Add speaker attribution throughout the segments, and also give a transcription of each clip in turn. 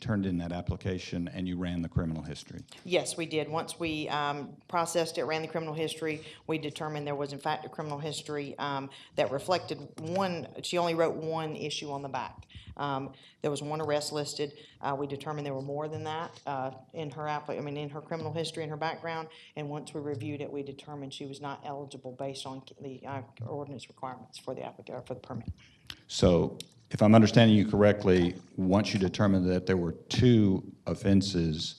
Speaker 1: turned in that application and you ran the criminal history.
Speaker 2: Yes, we did. Once we um, processed it, ran the criminal history, we determined there was in fact a criminal history um, that reflected one, she only wrote one issue on the back. Um, There was one arrest listed. Uh, We determined there were more than that uh, in her app, I mean, in her criminal history and her background. And once we reviewed it, we determined she was not eligible based on the uh, ordinance requirements for the applica, for the permit.
Speaker 1: So if I'm understanding you correctly, once you determined that there were two offenses,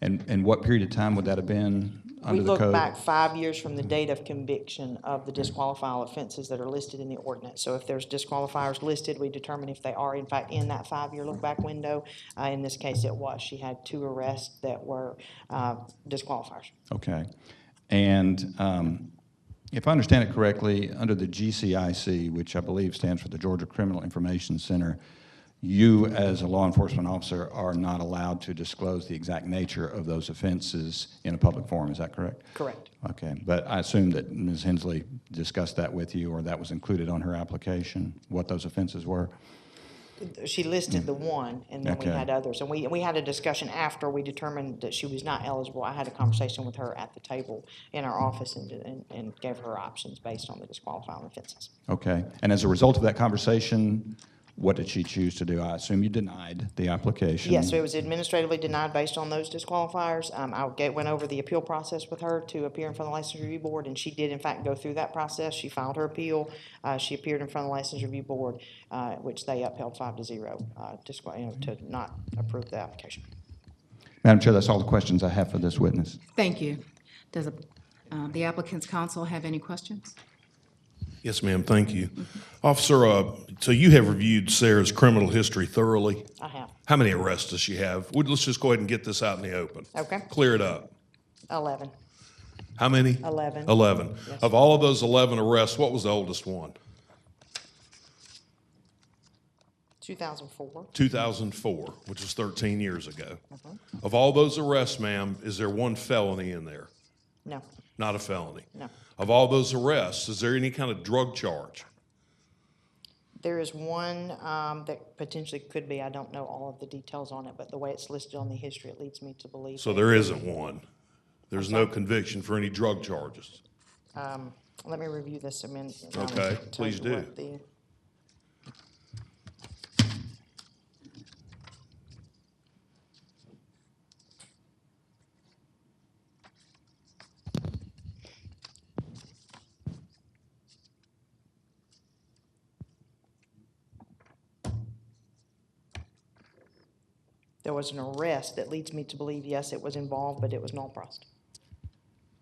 Speaker 1: and, and what period of time would that have been
Speaker 2: We
Speaker 1: under the
Speaker 2: look
Speaker 1: code? Mm-hmm.
Speaker 2: back five years from the date of conviction of the disqualifiable offenses that are listed in the ordinance. So if there's disqualifiers listed, we determine if they are in fact in that five-year look-back window. Uh, in this case, it was. She had two arrests that were, uh, disqualifiers.
Speaker 1: Okay. And um, if I understand it correctly, under the GCIC, which I believe stands for the Georgia Criminal Information Center, you, as a law enforcement officer, are not allowed to disclose the exact nature of those offenses in a public forum. Is that correct?
Speaker 2: Correct.
Speaker 1: Okay. But I assume that Ms. Hensley discussed that with you, or that was included on her application, what those offenses were?
Speaker 2: She listed the one, and then we
Speaker 1: Mm. Okay.
Speaker 2: had others. And we, we had a discussion after we determined that she was not eligible. I had a conversation with her at the table in our office and, and, and gave her options based on the disqualifying offenses.
Speaker 1: Okay. And as a result of that conversation, what did she choose to do? I assume you denied the application.
Speaker 2: Yes, it was administratively denied based on those disqualifiers. Um, I get- went over the appeal process with her to appear in front of the License Review Board, and she did in fact go through that process. She filed her appeal. Uh, She appeared in front of the License Review Board, uh, which they upheld five to zero, uh, disqua- you know, to not approve the application.
Speaker 1: Madam Chair, that's all the questions I have for this witness.
Speaker 3: Thank you. Does uh, the applicant's counsel have any questions?
Speaker 4: Yes, ma'am, thank you. Officer, uh, so you have reviewed Sarah's criminal history thoroughly.
Speaker 2: I have
Speaker 4: How many arrests does she have? Would- Let's just go ahead and get this out in the open.
Speaker 2: Okay.
Speaker 4: Clear it up.
Speaker 2: 11.
Speaker 4: How many?
Speaker 2: Eleven.
Speaker 4: Eleven. Of all of those eleven arrests, what was the oldest one?
Speaker 2: 2004.
Speaker 4: Two thousand four, which was thirteen years ago.
Speaker 2: Uh-huh.
Speaker 4: Of all those arrests, ma'am, is there one felony in there?
Speaker 2: No,
Speaker 4: Not a felony?
Speaker 2: No.
Speaker 4: Of all those arrests, is there any kind of drug charge?
Speaker 2: there is one um, that potentially could be, I don't know all of the details on it, but the way it's listed on the history, it leads me to believe.
Speaker 4: So there isn't one. There's no conviction for any drug charges.
Speaker 2: Let me review this amendment.
Speaker 4: Okay, please do.
Speaker 2: There was an arrest that leads me to believe, yes, it was involved, but it was null prost.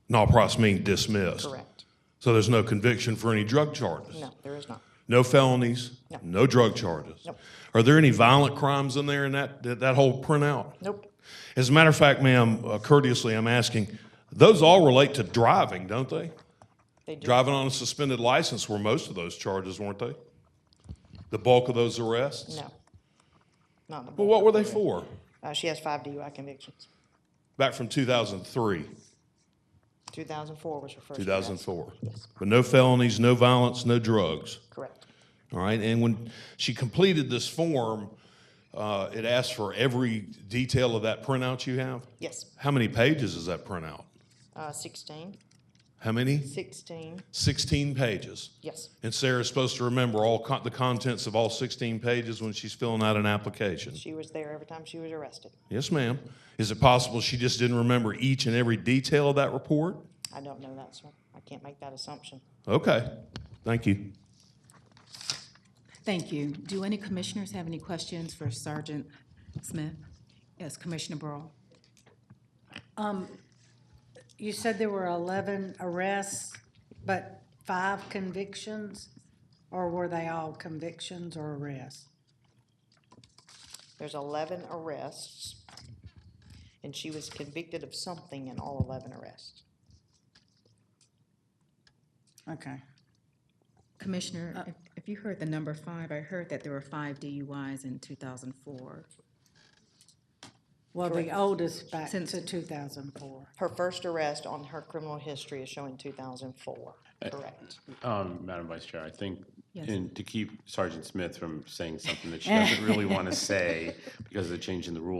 Speaker 4: Not process meaning dismissed.
Speaker 2: Correct.
Speaker 4: So there's no conviction for any drug charges?
Speaker 2: No, there is not.
Speaker 4: No felonies?
Speaker 2: No.
Speaker 4: drug charges?
Speaker 2: Nope.
Speaker 4: Are there any violent crimes in there in that, that, that whole printout?
Speaker 2: Nope.
Speaker 4: As a matter of fact, ma'am, uh, courteously, I'm asking, those all relate to driving, don't they?
Speaker 2: They do.
Speaker 4: Driving on a suspended license were most of those charges, weren't they? The bulk of those arrests?
Speaker 2: No. Not the
Speaker 4: Well,
Speaker 2: board.
Speaker 4: what were they for?
Speaker 2: Uh, she has five DUI convictions.
Speaker 4: Back from 2003,
Speaker 2: Two thousand four was her first arrest.
Speaker 4: 2004.
Speaker 2: Yes.
Speaker 4: But no felonies, no violence, no drugs.
Speaker 2: Correct.
Speaker 4: All right, and when she completed this form, uh, it asked for every detail of that printout you have?
Speaker 2: Yes.
Speaker 4: How many pages is that printout?
Speaker 2: Uh, sixteen.
Speaker 4: How many?
Speaker 2: Sixteen.
Speaker 4: 16 pages.
Speaker 2: Yes.
Speaker 4: And Sarah's supposed to remember all con- the contents of all 16 pages when she's filling out an application.
Speaker 2: She was there every time she was arrested.
Speaker 4: Yes, ma'am. Is it possible she just didn't remember each and every detail of that report?
Speaker 2: I don't know that, sir. I can't make that assumption.
Speaker 4: Okay, thank you.
Speaker 3: Thank you. Do any commissioners have any questions for Sergeant Smith? Yes, Commissioner Burrow.
Speaker 5: You said there were 11 arrests, but five convictions? Or were they all convictions or arrests?
Speaker 2: There's eleven arrests. And she was convicted of something in all eleven arrests.
Speaker 5: Okay.
Speaker 3: Commissioner, if- if you heard the number five, I heard that there were five DUIs in 2004.
Speaker 5: Well, the oldest back
Speaker 3: Since-
Speaker 5: to 2004.
Speaker 2: Her first arrest on her criminal history is showing two thousand four. Correct.
Speaker 6: Um, Madam Vice Chair, I think,
Speaker 3: Yes.
Speaker 6: and to keep Sergeant Smith from saying something that she doesn't really want to say because of the change in the rules.